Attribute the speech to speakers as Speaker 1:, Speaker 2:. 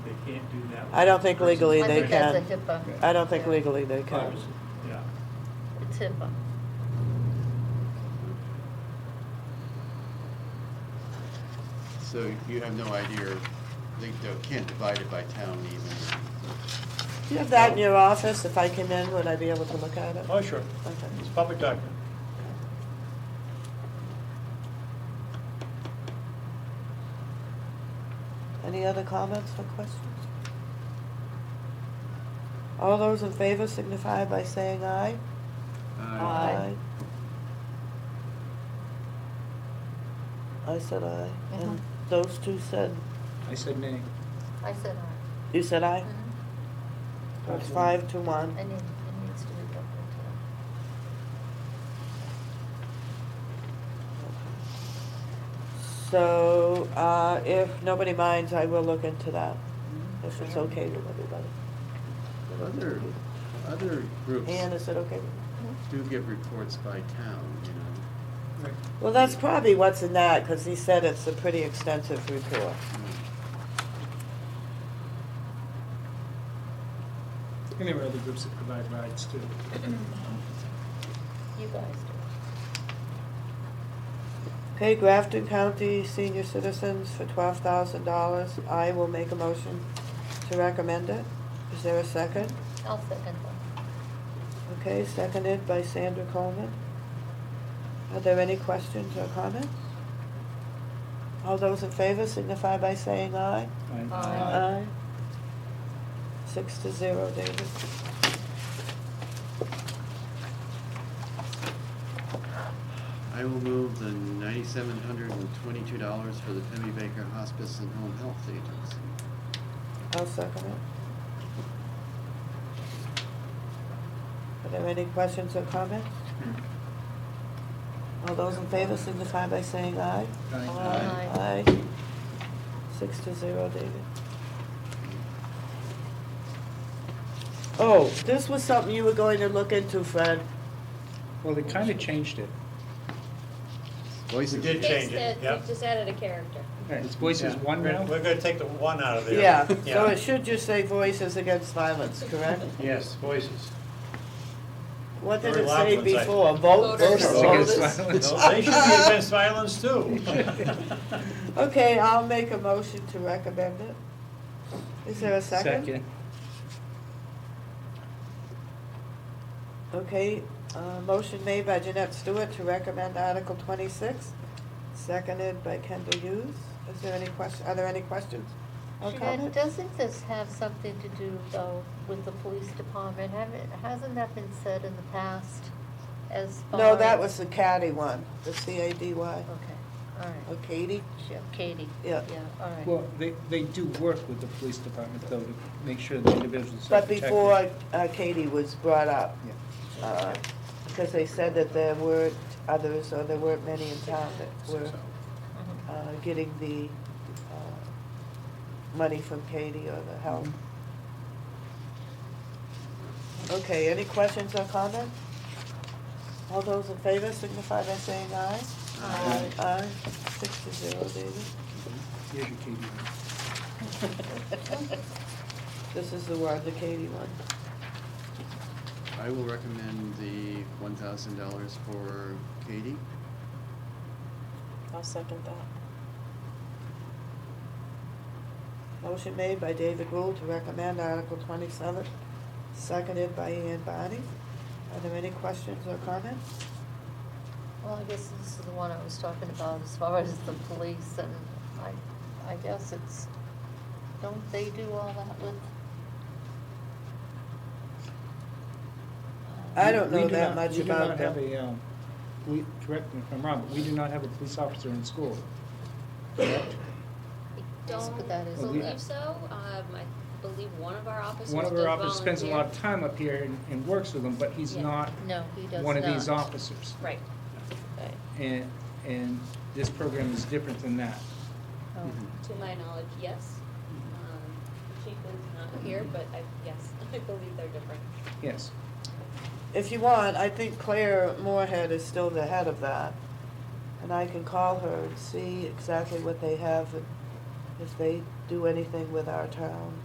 Speaker 1: can't do that. with
Speaker 2: I don't think
Speaker 1: the person.
Speaker 2: legally
Speaker 3: I
Speaker 2: they
Speaker 3: think that's a
Speaker 2: can.
Speaker 3: HIPAA,
Speaker 2: I don't think legally they can.
Speaker 1: Privacy, Yeah.
Speaker 3: it's HIPAA.
Speaker 4: So you have no idea, they they can't divide it by town even.
Speaker 2: Do you have that in your office? If I came in, would I be able to look at it?
Speaker 1: Oh, sure.
Speaker 2: Okay.
Speaker 1: It's a public document.
Speaker 2: Any other comments or questions? All those in favor signify by saying aye.
Speaker 3: Aye.
Speaker 2: I said aye,
Speaker 3: Mhm.
Speaker 2: and those two said,
Speaker 5: I said nay.
Speaker 3: I said uh, aye.
Speaker 2: you said aye?
Speaker 3: Mhm.
Speaker 2: So It's five to one.
Speaker 3: I need, it needs to be double checked.
Speaker 2: So, uh, if nobody minds, I will look into that, if it's okay with everybody.
Speaker 4: Other, other groups
Speaker 2: Ann, is it okay? with you?
Speaker 3: Mm-hmm.
Speaker 4: do get reports by town, you know.
Speaker 5: Right.
Speaker 2: Well, that's probably what's in that, because he said it's a pretty extensive report.
Speaker 5: And there were other groups that provide rides too.
Speaker 3: You guys do.
Speaker 2: Okay, Grafton County Senior Citizens for twelve thousand dollars. I will make a motion to recommend it. Is there a second?
Speaker 3: I'll second that.
Speaker 2: Okay, seconded by Sandra Coleman. Are there any questions or comments? All those in favor signify by saying aye. Uh,
Speaker 3: Aye.
Speaker 2: Six to zero, David.
Speaker 4: I will move the ninety-seven hundred and twenty-two dollars for the Pemmy Baker Hospice and Home Health Agency.
Speaker 2: I'll second it. Are there any questions or comments? All those in favor signify by saying aye. uh,
Speaker 4: Aye.
Speaker 2: Aye. Six to zero, David. Oh, this was something you were going to look into, Fred.
Speaker 5: Well, they kind of changed it.
Speaker 4: Voices.
Speaker 1: We did change it,
Speaker 6: Fixed
Speaker 1: yep.
Speaker 6: We just added a character.
Speaker 5: It's voices one
Speaker 1: We're-
Speaker 5: now?
Speaker 1: We're gonna take the one out of there.
Speaker 2: Yeah, so it should just say Voices Against Violence, correct?
Speaker 1: Yes, voices.
Speaker 2: What did
Speaker 1: Very
Speaker 2: it
Speaker 1: loud
Speaker 2: say
Speaker 1: ones, I-
Speaker 2: before? Vote,
Speaker 6: Voters.
Speaker 2: voters, voters?
Speaker 5: Against
Speaker 1: No,
Speaker 5: violence.
Speaker 1: They should be against violence too.
Speaker 2: Okay, I'll make a motion to recommend it. Is there a second? Okay, uh, motion made by Jeanette Stewart to recommend Article twenty-six, seconded by Kendall Hughes. Is there any question, are there any questions or
Speaker 3: Jeanette,
Speaker 2: comments?
Speaker 3: doesn't this have something to do though with the police department? Haven't, hasn't that been said in the past as far?
Speaker 2: No, that was
Speaker 3: as-
Speaker 2: the Caddy one, the C A D Y.
Speaker 3: Okay, all
Speaker 2: Oh,
Speaker 3: right.
Speaker 2: Katie?
Speaker 3: Yeah, Katie.
Speaker 2: Yeah.
Speaker 3: Yeah, all right.
Speaker 5: Well, they, they do work with the police department though to make sure the individuals are
Speaker 2: But
Speaker 5: protected.
Speaker 2: before uh, Katie was brought up,
Speaker 5: Yeah.
Speaker 2: uh, because they said that there weren't others, or there weren't many in town that were
Speaker 3: Mhm.
Speaker 2: uh, getting the uh, money from Katie or the help. Okay, any questions or comments? All those in favor signify by saying aye.
Speaker 3: Aye.
Speaker 2: Aye, six to zero, David.
Speaker 5: Here's your KD.
Speaker 2: This is the one, the Katie one.
Speaker 4: I will recommend the one thousand dollars for Katie.
Speaker 6: I'll second that.
Speaker 2: Motion made by David Rule to recommend Article twenty-seven, seconded by Ann Barney. Are there any questions or comments?
Speaker 3: Well, I guess this is the one I was talking about as far as the police and I, I guess it's, don't they do all that with?
Speaker 2: I don't
Speaker 5: We- we
Speaker 2: know
Speaker 5: do
Speaker 2: that
Speaker 5: not-
Speaker 2: much about
Speaker 5: We do not have
Speaker 2: them.
Speaker 5: a, um, we, correct me if I'm wrong, but we do not have a police officer in school. correct?
Speaker 6: I
Speaker 3: Yes, but that
Speaker 6: Don't
Speaker 3: is
Speaker 5: allowed.
Speaker 6: believe so. Um, I believe one of our officers
Speaker 5: One of
Speaker 6: did
Speaker 5: our officers spends a lot of
Speaker 6: volunteer.
Speaker 5: time up here and, and works with them, but he's
Speaker 6: Yeah.
Speaker 5: not
Speaker 3: No, he does not.
Speaker 5: one of these officers.
Speaker 6: Right. But
Speaker 5: And, and this program is different than that.
Speaker 3: Oh.
Speaker 5: Mm-hmm.
Speaker 6: to my knowledge, yes. Um, Chief is not here, but I, yes, I believe they're different.
Speaker 5: Yes.
Speaker 2: If you want, I think Claire Moorhead is still the head of that. And I can call her and see exactly what they have and if they do anything with our town.